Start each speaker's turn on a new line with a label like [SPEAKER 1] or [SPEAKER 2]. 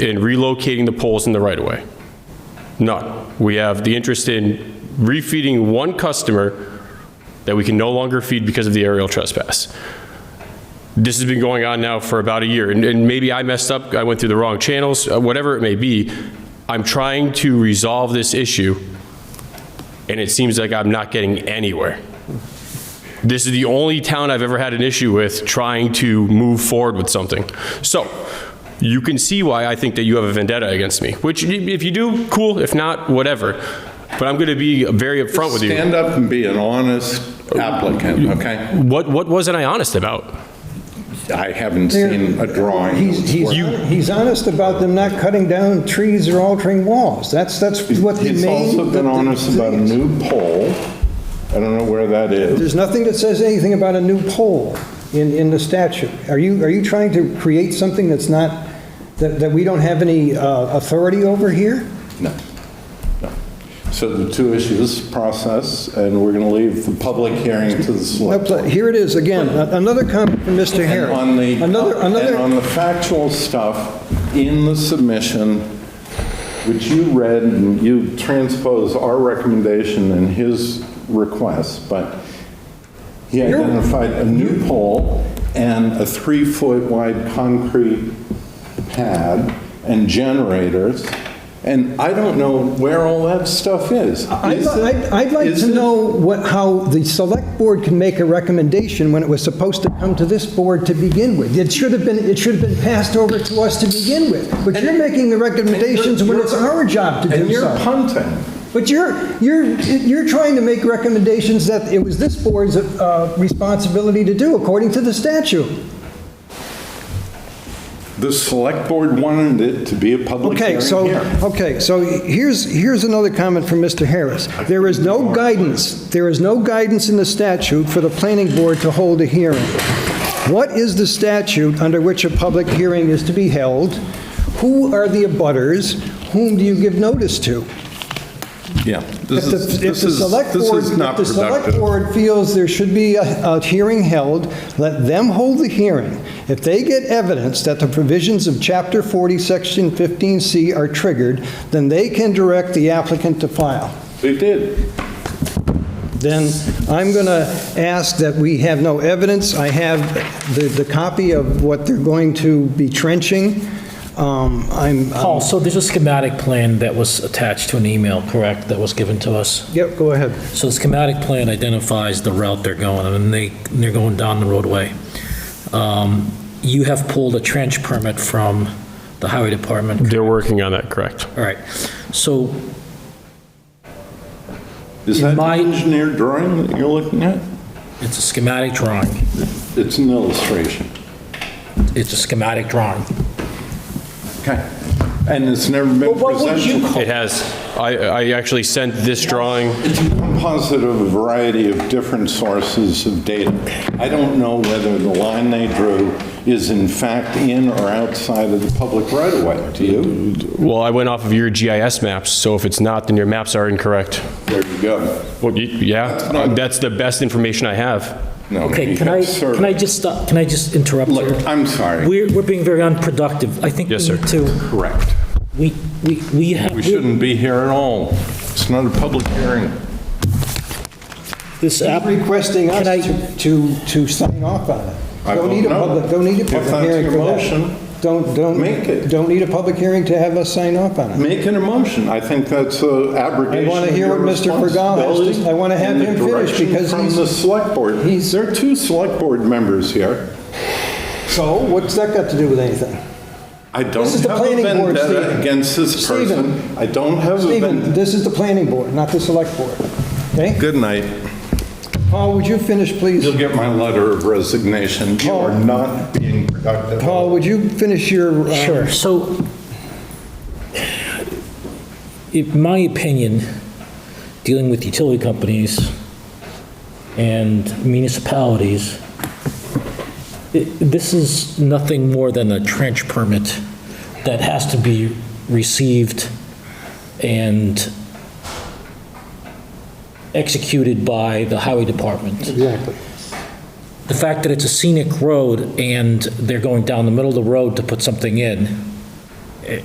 [SPEAKER 1] in relocating the poles in the right-of-way. None. We have the interest in refeeding one customer that we can no longer feed because of the aerial trespass. This has been going on now for about a year, and- and maybe I messed up, I went through the wrong channels, uh, whatever it may be. I'm trying to resolve this issue, and it seems like I'm not getting anywhere. This is the only town I've ever had an issue with trying to move forward with something. So you can see why I think that you have a vendetta against me, which y- if you do, cool, if not, whatever. But I'm going to be very upfront with you.
[SPEAKER 2] Stand up and be an honest applicant, okay?
[SPEAKER 1] What, what wasn't I honest about?
[SPEAKER 2] I haven't seen a drawing.
[SPEAKER 3] He's, he's, he's honest about them not cutting down trees or altering walls. That's, that's what the main.
[SPEAKER 2] He's also been honest about a new poll. I don't know where that is.
[SPEAKER 3] There's nothing that says anything about a new pole in, in the statute. Are you, are you trying to create something that's not, that, that we don't have any uh, authority over here?
[SPEAKER 2] No, no. So the two issues, process, and we're going to leave the public hearing to the select.
[SPEAKER 3] Nope, Here it is again, another comment from Mr. Harris.
[SPEAKER 2] On the,
[SPEAKER 3] Another,
[SPEAKER 2] and on
[SPEAKER 3] another,
[SPEAKER 2] the factual stuff in the submission, which you read and you transpose our recommendation and his request, but he
[SPEAKER 3] You're-
[SPEAKER 2] identified a new pole and a three-foot wide concrete pad and generators. And I don't know where all that stuff is.
[SPEAKER 3] I'd,
[SPEAKER 2] Is it-
[SPEAKER 3] I'd- I'd like
[SPEAKER 2] is
[SPEAKER 3] to
[SPEAKER 2] it-
[SPEAKER 3] know what, how the select board can make a recommendation when it was supposed to come to this board to begin with. It should have been, it should have been passed over to us to begin with, but you're making the recommendations when it's our job to
[SPEAKER 2] And
[SPEAKER 3] do
[SPEAKER 2] you're
[SPEAKER 3] something.
[SPEAKER 2] punting.
[SPEAKER 3] But you're, you're, you're trying to make recommendations that it was this board's uh, responsibility to do according to the statute.
[SPEAKER 2] The select board wanted it to be a public
[SPEAKER 3] Okay,
[SPEAKER 2] hearing
[SPEAKER 3] so,
[SPEAKER 2] here.
[SPEAKER 3] okay, so here's, here's another comment from Mr. Harris. There is no guidance, there is no guidance in the statute for the planning board to hold a hearing. What is the statute under which a public hearing is to be held? Who are the abutters? Whom do you give notice to?
[SPEAKER 2] Yeah.
[SPEAKER 3] If
[SPEAKER 2] This
[SPEAKER 3] the-
[SPEAKER 2] is,
[SPEAKER 3] if
[SPEAKER 2] this
[SPEAKER 3] the
[SPEAKER 2] is,
[SPEAKER 3] select
[SPEAKER 2] this
[SPEAKER 3] board-
[SPEAKER 2] is not
[SPEAKER 3] If the select
[SPEAKER 2] productive.
[SPEAKER 3] board feels there should be a, a hearing held, let them hold the hearing. If they get evidence that the provisions of Chapter 40, Section 15C are triggered, then they can direct the applicant to file.
[SPEAKER 2] We did.
[SPEAKER 3] Then I'm going to ask that we have no evidence. I have the, the copy of what they're going to be trenching. Um, I'm, I'm-
[SPEAKER 4] Paul, so there's a schematic plan that was attached to an email, correct, that was given to us?
[SPEAKER 3] yep, go ahead.
[SPEAKER 4] So the schematic plan identifies the route they're going, and they, they're going down the roadway. Um, You have pulled a trench permit from the highway department.
[SPEAKER 1] They're working on that, correct?
[SPEAKER 4] All right, so
[SPEAKER 2] Is
[SPEAKER 4] In
[SPEAKER 2] that
[SPEAKER 4] my-
[SPEAKER 2] an engineered drawing that you're looking at?
[SPEAKER 4] it's a schematic drawing.
[SPEAKER 2] It's an illustration.
[SPEAKER 4] It's a schematic drawing.
[SPEAKER 2] Okay. And it's never been
[SPEAKER 4] what would you
[SPEAKER 2] presented.
[SPEAKER 1] It has. I, I actually sent this drawing.
[SPEAKER 2] It's a composite of a variety of different sources of data. I don't know whether the line they drew is in fact in or outside of the public right of way. Do you?
[SPEAKER 1] Well, I went off of your GIS maps, so if it's not, then your maps are incorrect.
[SPEAKER 2] There you go.
[SPEAKER 1] Well, y- yeah, that's the best information I have.
[SPEAKER 2] No,
[SPEAKER 4] Okay,
[SPEAKER 2] you
[SPEAKER 4] can
[SPEAKER 2] have
[SPEAKER 4] I,
[SPEAKER 2] survey.
[SPEAKER 4] can I just stop, can I just interrupt?
[SPEAKER 2] Look,
[SPEAKER 4] here?
[SPEAKER 2] I'm sorry.
[SPEAKER 4] We're, we're being very unproductive. I think we
[SPEAKER 1] Yes, sir.
[SPEAKER 4] need to,
[SPEAKER 2] Correct.
[SPEAKER 4] we, we, we have.
[SPEAKER 2] We shouldn't be here at all. It's not a public hearing.
[SPEAKER 4] This app.
[SPEAKER 3] He's requesting us
[SPEAKER 4] Can I-
[SPEAKER 3] to- to, to sign off on it.
[SPEAKER 2] I
[SPEAKER 3] Don't
[SPEAKER 2] don't
[SPEAKER 3] need a
[SPEAKER 2] know.
[SPEAKER 3] public, don't need a
[SPEAKER 2] If
[SPEAKER 3] public
[SPEAKER 2] that's
[SPEAKER 3] hearing
[SPEAKER 2] your
[SPEAKER 3] for that.
[SPEAKER 2] motion,
[SPEAKER 3] Don't,
[SPEAKER 2] make
[SPEAKER 3] don't,
[SPEAKER 2] it.
[SPEAKER 3] don't need a public hearing to have us sign off on it.
[SPEAKER 2] Make an emotion. I think that's a
[SPEAKER 3] I
[SPEAKER 2] abrogation
[SPEAKER 3] want to
[SPEAKER 2] of
[SPEAKER 3] hear
[SPEAKER 2] your
[SPEAKER 3] what Mr. Fergal has
[SPEAKER 2] responsibility
[SPEAKER 3] to, I want to have
[SPEAKER 2] and the
[SPEAKER 3] him finish
[SPEAKER 2] direction
[SPEAKER 3] because
[SPEAKER 2] From the
[SPEAKER 3] he's,
[SPEAKER 2] select board.
[SPEAKER 3] he's-
[SPEAKER 2] There are two select board members here.
[SPEAKER 3] so what's that got to do with anything?
[SPEAKER 2] I don't
[SPEAKER 3] is the
[SPEAKER 2] have a
[SPEAKER 3] planning board,
[SPEAKER 2] vendetta
[SPEAKER 3] Stephen.
[SPEAKER 2] against this
[SPEAKER 3] Stephen.
[SPEAKER 2] person. I don't have a
[SPEAKER 3] Stephen,
[SPEAKER 2] vendetta.
[SPEAKER 3] this is the planning board, not the select board, okay?
[SPEAKER 2] Good night.
[SPEAKER 3] Paul, would you finish, please?
[SPEAKER 2] You'll get my letter of resignation. You
[SPEAKER 3] Paul.
[SPEAKER 2] are not being productive.
[SPEAKER 3] Paul, would you finish your? uh,
[SPEAKER 4] Sure, so, in my opinion, dealing with utility companies and municipalities, i- this is nothing more than a trench permit that has to be received and executed by the highway department
[SPEAKER 3] Exactly.
[SPEAKER 4] the fact that it's a scenic road and they're going down the middle of the road to put something in,